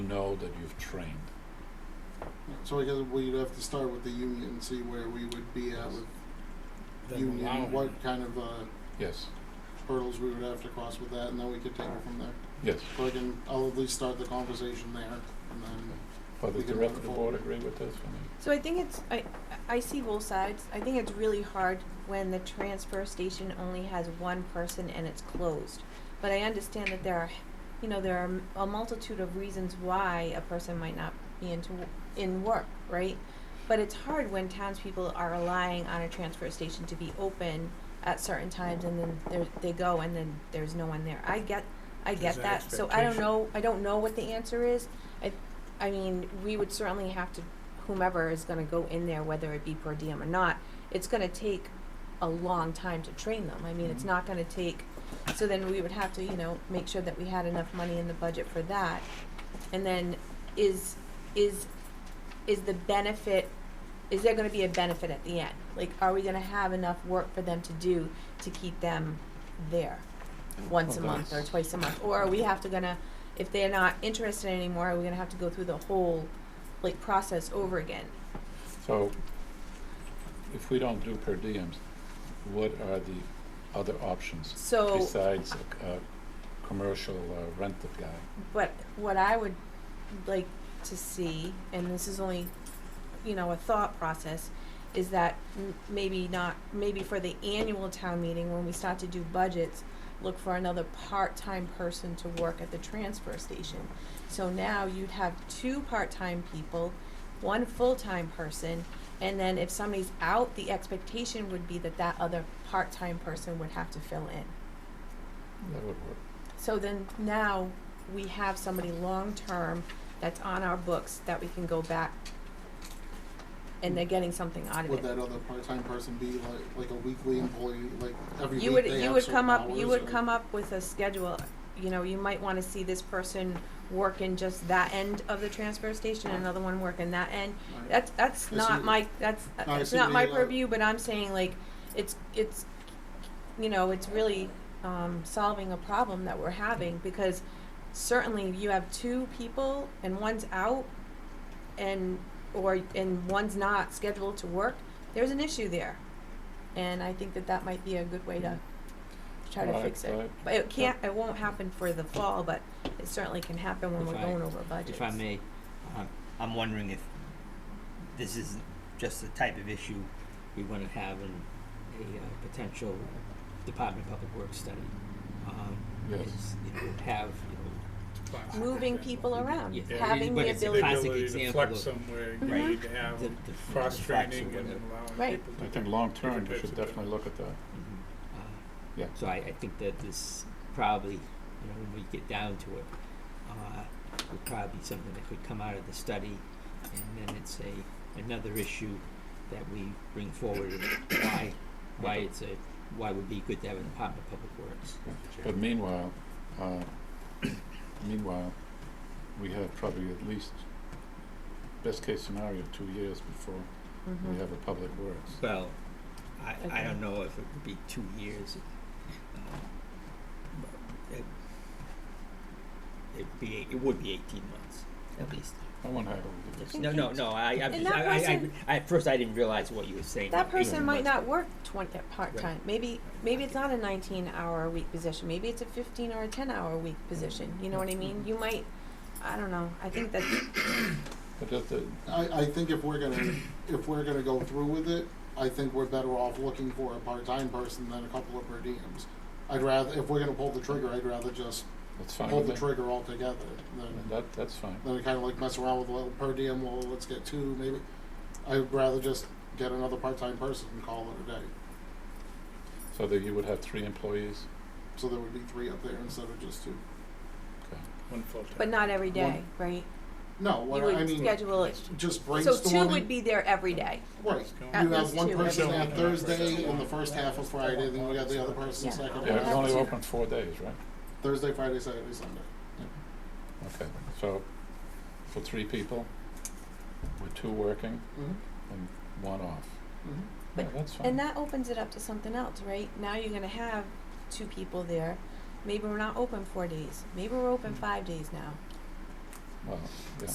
know that you've trained. So I guess we'd have to start with the union and see where we would be at with Then union, allowing what it. kind of uh, Yes, hurdles we would have to cross with that, and then we could take it from there. yes. So I can, I'll at least start the conversation there, and then, But We does the can rest move of the forward. board agree with this? I mean, So I think it's, I, I see both sides. I think it's really hard when the transfer station only has one person and it's closed. But I understand that there are, you know, there are a multitude of reasons why a person might not be into, in work, right? But it's hard when townspeople are relying on a transfer station to be open at certain times and then there, they go and then there's no one there. I get, I There's get an that. So I don't expectation. know, I don't know what the answer is. I, I mean, we would certainly have to, whomever is gonna go in there, whether it be per diem or not, it's gonna take a long time to train them. I mean, it's Mhm. not gonna take, so then we would have to, you know, make sure that we had enough money in the budget for that. And then is, is, is the benefit, is there gonna be a benefit at the end? Like, are we gonna have enough work for them to do to keep them there once a Well, month or that's- twice a month? Or are we have to gonna, if they're not interested anymore, are we gonna have to go through the whole, like, process over again? So if we don't do per diems, what are the other options So, besides a, a commercial uh, rental guy? but what I would like to see, and this is only, you know, a thought process, is that m- maybe not, maybe for the annual town meeting, when we start to do budgets, look for another part-time person to work at the transfer station. So now you'd have two part-time people, one full-time person, and then if somebody's out, the expectation would be that that other part-time person would have to fill in. That would work. So then now we have somebody long-term that's on our books that we can go back and they're getting something out of would it. that other part-time person be like, like a weekly employee, like every You week would, they you have would certain come up, hours, you would or- come up with a schedule, you know, you might wanna see this person work in just that end of the transfer station, another one work in that end. Right. That's, that's I not see. my, that's, I that's see not what my you mean, like- purview, but I'm saying like, it's, it's, you know, it's really, um, solving a problem that we're having because certainly you have two people and one's out and, or, and one's not scheduled to work, there's an issue there. And I think that that might be a good way to try to Right, fix it. right. But it can't, it won't happen for the fall, but it certainly can happen when If we're I- going over budgets. If I may, um, I'm wondering if this is just the type of issue we wanna have in a uh, potential Department of Public Works study. Um, Yes. is, you know, have, you know, Moving people around, Yeah, having but the it's a ability. classic to example flex of- somewhere, you Right. need to have the, the- the cross facts or training and whatever. allowing Right. people to. I think do long-term, different we types should of things. definitely look at that. Mhm. Uh, Yeah. So I, I think that this probably, you know, when we get down to it, uh, would probably be something that could come out of the study. And then it's a, another issue that we bring forward and why, why it's a, why it would be good to have an Department of Public Works. But meanwhile, uh, meanwhile, we have probably at least, best case scenario, two years before we Mhm. have a public works. Well, I, I Okay. don't know if it would be two years. um, but It, it'd be, it would be eighteen months at least. I want to have Thank No, you. no, no, I, I, And just- that I, I, person- I, at first I didn't realize what you were saying. That about eighteen person might months. not work twenty, part-time, maybe, maybe it's not a nineteen-hour a week position, maybe it's a fifteen or a ten-hour a week position, you know what I mean? You might, I don't know, I think that, But does the, I, I think if we're gonna, if we're gonna go through with it, I think we're better off looking for a part-time person than a couple of per diems. I'd rather, if we're gonna pull the trigger, I'd rather just that's fine pull with the me. trigger altogether than, And That, that's fine. than to kinda like mess around with a little per diem, well, let's get two, maybe. I'd rather just get another part-time person and call it a day, So that you would have three employees? so there would be three up there instead of just two. One full-time. but not every day, One- right? No, You what I would mean, schedule it, just so brainstorming. two would be there every day, Right, At you have least one two. person Yeah. on Thursday and the first half of Friday, then we got the other person Yeah. second Yeah, half. it's have only to- open four days, right? Thursday, Friday, Saturday, Sunday. Okay, so for three people, with two working Mm-hmm. and one off. Mm-hmm. Yeah, But- that's fine. and that opens it up to something else, right? Now you're gonna have two people there, maybe we're not open four days, maybe we're open Mm. five days now. Well,